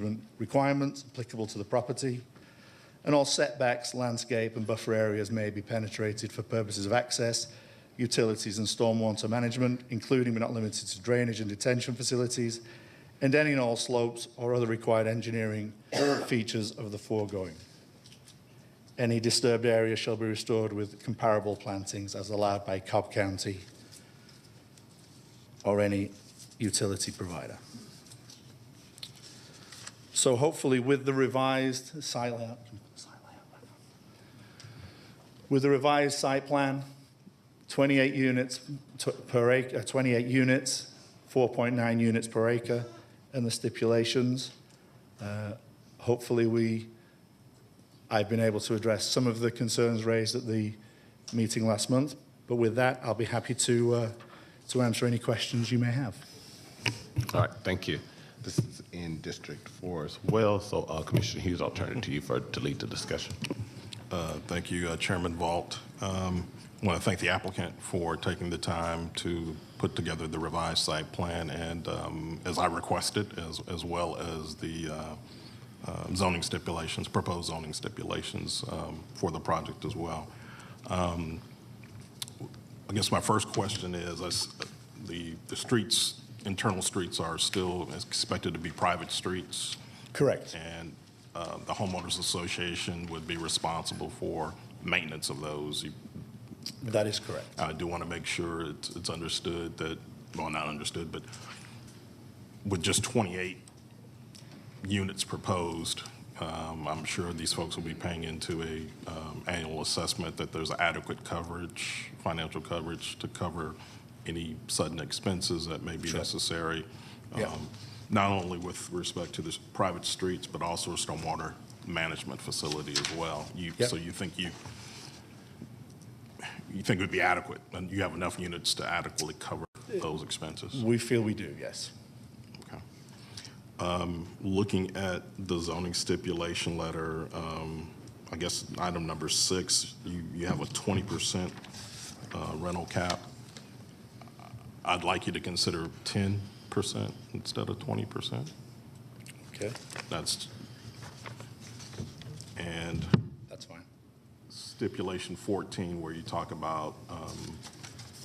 management requirements applicable to the property, and all setbacks, landscape and buffer areas may be penetrated for purposes of access, utilities and stormwater management, including but not limited to drainage and detention facilities, and any and all slopes or other required engineering features of the foregoing. Any disturbed area shall be restored with comparable plantings as allowed by Cobb County or any utility provider. So hopefully with the revised site layout, with the revised site plan, 28 units t- per acre, 28 units, 4.9 units per acre, and the stipulations, uh, hopefully we, I've been able to address some of the concerns raised at the meeting last month. But with that, I'll be happy to, uh, to answer any questions you may have. All right, thank you. This is in District Four as well, so uh, Commissioner Hughes, I'll turn it to you for, to lead the discussion. Uh, Thank you, uh, Chairman Vault. Um, I want to thank the applicant for taking the time to put together the revised site plan and, um, as I requested, as as well as the uh, uh, zoning stipulations, proposed zoning stipulations um, for the project as well. Um, I guess my first question is, I s- the the streets, internal streets are still expected to be private streets? Correct. And uh, the homeowners association would be responsible for maintenance of those. You- That is correct. I do want to make sure it's it's understood that, well, not understood, but with just 28 units proposed, um, I'm sure these folks will be paying into a um, annual assessment that there's adequate coverage, financial coverage to cover any sudden expenses that may be necessary. Yeah. um, Not only with respect to the s- private streets, but also stormwater management facility as well. You, Yeah. so you think you, you think it would be adequate? And you have enough units to adequately cover those expenses? We feel we do, yes. Okay. Um, Looking at the zoning stipulation letter, um, I guess item number six, you you have a 20% uh, rental cap. I'd like you to consider 10% instead of 20%. Okay, That's, and that's fine. stipulation 14, where you talk about, um,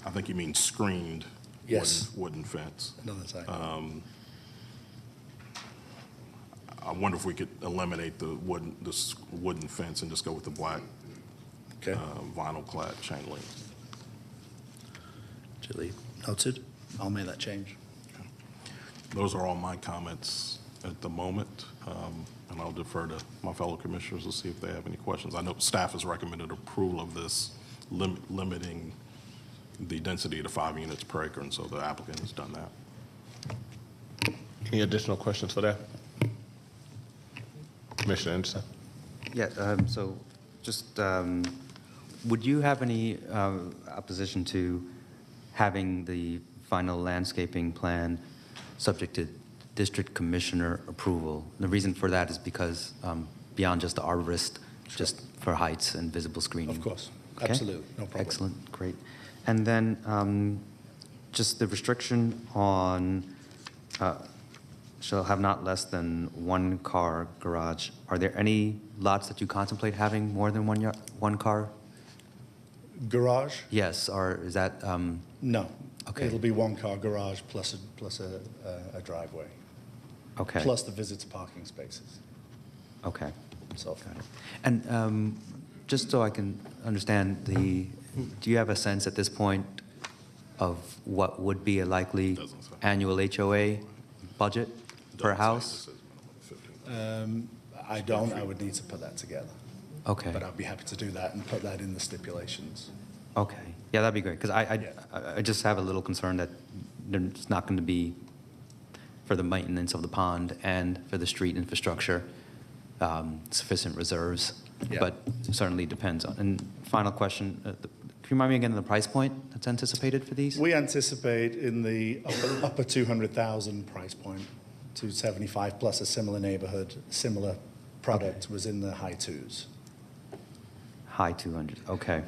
I think you mean screened Yes. wooden wooden fence. Another time. Uh, I wonder if we could eliminate the wooden, this wooden fence and just go with the black okay. uh, vinyl clad chain link. Duly noted. I'll make that change. Those are all my comments at the moment, um, and I'll defer to my fellow commissioners to see if they have any questions. I know staff has recommended approval of this, lim- limiting the density to five units per acre, and so the applicant has done that. Any additional questions for that? Commissioner Anderson? Yeah, um, so just, um, would you have any uh, opposition to having the final landscaping plan subject to district commissioner approval? The reason for that is because um, beyond just the arborist, just for heights and visible screening. Of course. Okay? Absolutely. No problem. Excellent, great. And then um, just the restriction on uh, shall have not less than one car garage. Are there any lots that you contemplate having more than one yard, one car? Garage? Yes, or is that, um, No. Okay. It'll be one car garage plus a, plus a, a- a driveway, okay. plus the visitor parking spaces. Okay, So, got it. And um, just so I can understand the, do you have a sense at this point of what would be a likely Doesn't say. annual HOA budget per Doesn't say house? this is minimum of um, 15. I don't, I would need to put that together. Okay. But I'd be happy to do that and put that in the stipulations. Okay, yeah, that'd be great, because I, Yeah. I- I, I just have a little concern that there's not going to be, for the maintenance of the pond and for the street infrastructure, um, sufficient reserves. Yeah. But certainly depends on, and final question, uh, the- can you remind me again of the price point that's anticipated for these? We anticipate in the upper, upper 200,000 price point, 275 plus a similar neighborhood, similar product was in the high twos. High 200, okay.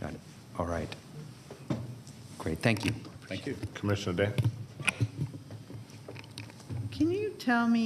Got it, all right. Great, thank you. Thank you. Commissioner Day? Can you tell me